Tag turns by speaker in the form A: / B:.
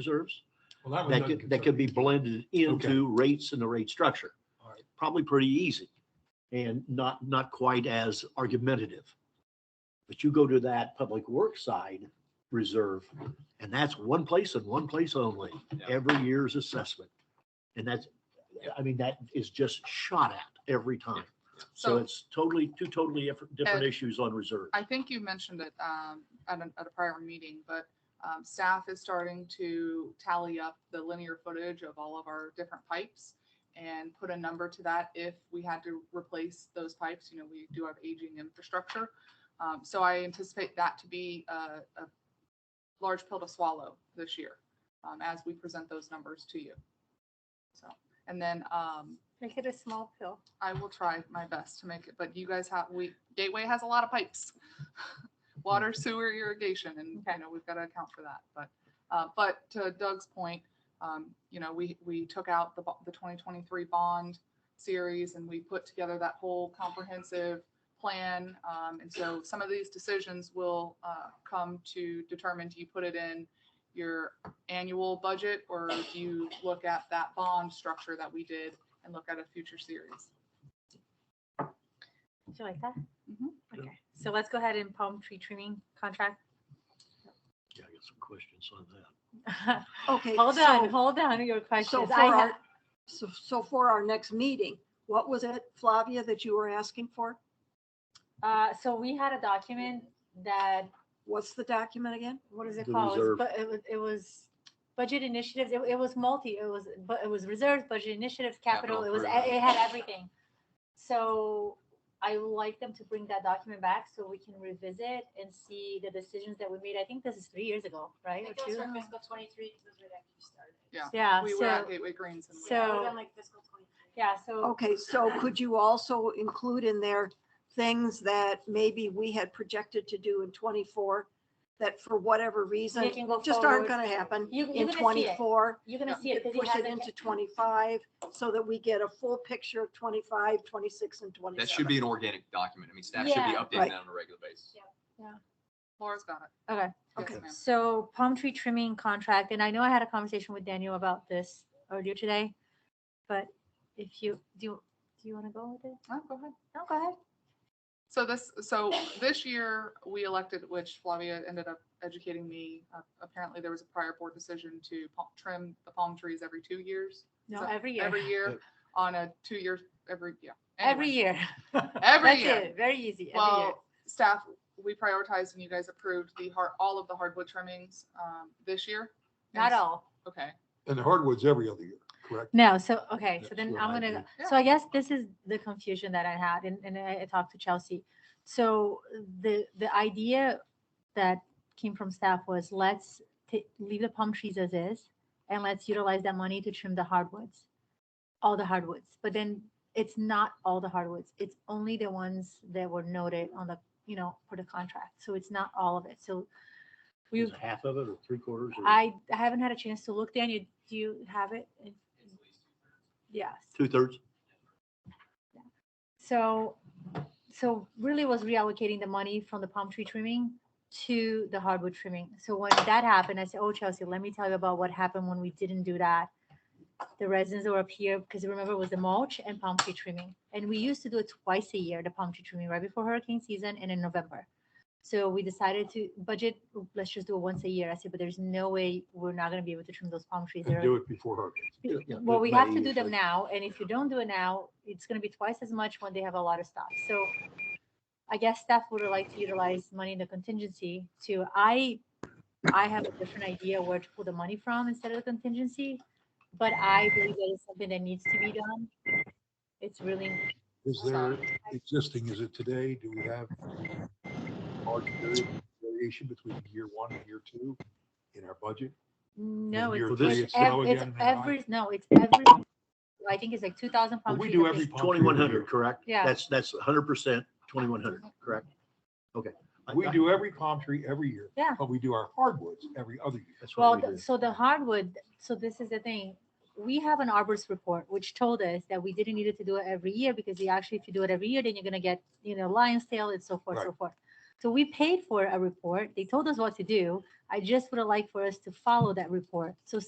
A: reserves
B: Well, that was
A: that
B: under
A: could, that could be
B: consideration.
A: blended into rates and the rate structure.
B: All right.
A: Probably pretty easy and not, not quite as argumentative. But you go to that public works side reserve, and that's one place and one place only,
B: Yeah.
A: every year's assessment. And that's, I mean, that is just shot at every time. So
C: So- Uh,
A: it's totally, two totally different, different issues on reserve.
C: I think you mentioned it um, at, an, at a prior meeting, but um, staff is starting to tally up the linear footage of all of our different pipes and put a number to that if we had to replace those pipes. You know, we do have aging infrastructure. Um, so I anticipate that to be a, a large pill to swallow this year um, as we present those numbers to you. So, and then um,
D: Make it a small pill.
C: I will try my best to make it, but you guys have, we, Gateway has a lot of pipes. Water, sewer, irrigation, and, you know, we've got to account for that, but, uh, but to Doug's point, um, you know, we, we took out the, bo- the twenty twenty-three bond series and we put together that whole comprehensive plan, um, and so some of these decisions will, uh, come to determine, do you put it in your annual budget, or do you look at that bond structure that we did and look at a future series?
D: Did you like that?
C: Mhm.
E: Mm-hmm.
D: Okay, so let's go ahead and palm tree trimming contract.
A: Yeah, I got some questions on that.
E: Okay.
D: Hold on,
E: so-
D: hold on, to your
E: So
D: questions.
E: for
D: I have,
E: our, so, so for our next meeting, what was it, Flavia, that you were asking for?
D: uh, so we had a document that,
E: What's the document again?
D: what is it
A: The
D: called? It was
A: reserve.
D: bu- It was, it was budget initiatives, it, it was multi, it was, but it was reserves, budget initiatives, capital, it was, it
F: improvement.
D: it had everything. So I would like them to bring that document back so we can revisit and see the decisions that we made. I think this is three years ago, right?
G: It
D: Or
G: goes
D: two?
G: from fiscal twenty-three because we actually started.
C: Yeah.
D: Yeah,
C: We were
D: so,
C: at Gateway Greens and we.
D: so-
G: We're done like fiscal twenty-three. Oh,
D: yeah, so
E: Okay, so could you also include in there things that maybe we had projected to do in twenty-four that for whatever reason,
D: They can go
E: just aren't
D: forward.
E: gonna happen
D: You- you're
E: in
D: gonna see it.
E: twenty-four?
D: you're gonna
C: Yeah,
D: see it because
E: Push
D: it
E: it
D: hasn't.
E: into twenty-five so that we get a full picture of 25, 26, and twenty-seven.
F: That should be an organic document. I mean, staff should be
D: Yeah.
F: updating
E: Right.
F: that on a regular basis.
C: Laura's got it.
D: Okay.
C: Yes,
E: Okay.
C: ma'am.
D: So palm tree trimming contract, and I know I had a conversation with Daniel about this earlier today, but if you, do, do you want to go with it?
C: Oh, go ahead.
D: No, go ahead.
C: So this, so this year, we elected, which Flavia ended up educating me, uh, apparently there was a prior board decision to pa- trim the palm trees every two years.
D: No,
C: So
D: every year,
C: Every year, on a two-year, every, yeah.
D: every
C: Anyway,
D: year.
C: Every
D: That's
C: year.
D: it, very easy, every year.
C: Well, staff, we prioritized and you guys approved the hard, all of the hardwood trimmings, um, this year. And
D: Not
C: s-
D: all.
C: Okay.
H: And the hardwood's every other year, correct?
D: No, so, okay, so
H: That's
D: then
H: what
D: I'm
H: I
D: gonna,
H: do.
D: go- so I guess this is the confusion that I had, and, and I I talked to Chelsea. So the, the idea that came from staff was let's ta- leave the palm trees as is, and let's utilize that money to trim the hardwoods, all the hardwoods. But then it's not all the hardwoods, it's only the ones that were noted on the, you know, for the contract, so it's not all of it, so.
A: Is
D: We,
A: it half of it or three quarters? or-
D: I I haven't had a chance to look, Daniel, do you have it? Yes.
A: Two thirds?
D: So, so really was reallocating the money from the palm tree trimming to the hardwood trimming. So when that happened, I said, oh, Chelsea, let me tell you about what happened when we didn't do that. The resins that were up here, because remember it was the mulch and palm tree trimming. And we used to do it twice a year, the palm tree trimming, right before hurricane season and in November. So we decided to budget, let's just do it once a year. I said, but there's no way we're not gonna be able to trim those palm trees. They're-
H: And do it before hurricanes.
A: Yeah, yeah,
D: well,
A: mid-
D: we have
A: May
D: to do them
A: usually.
D: now, and if you don't do it now, it's gonna be twice as much when they have a lot of stuff, so. I guess staff would like to utilize money in the contingency to, I, I have a different idea where to pull the money from instead of the contingency. But I believe that is something that needs to be done. It's really,
H: Is there existing, is it today? Do we have large vari- variation between year one and year two in our budget?
D: no,
H: you're
D: it's,
A: three,
D: it's
H: it's now
D: ev- it's
H: again, right?
D: every, no, it's every, I think it's like two thousand
H: Well,
D: pound.
H: we
D: trees
H: do
D: that they-
H: every-
A: Twenty-one hundred, correct?
D: Yeah.
A: That's, that's hundred percent, twenty-one hundred, correct? Okay. I-
H: We
A: I-
H: do every palm tree every year.
D: Yeah.
H: But we do our hardwoods every other year.
A: That's
D: Well,
A: what we
D: the-
A: do.
D: so the hardwood, so this is the thing, we have an arborist report, which told us that we didn't need it to do it every year, because you actually, if you do it every year, then you're gonna get, you know, lion's tail and so forth, so
H: Right.
D: forth. So we paid for a report. They told us what to do. I just would have liked for us to follow that report. So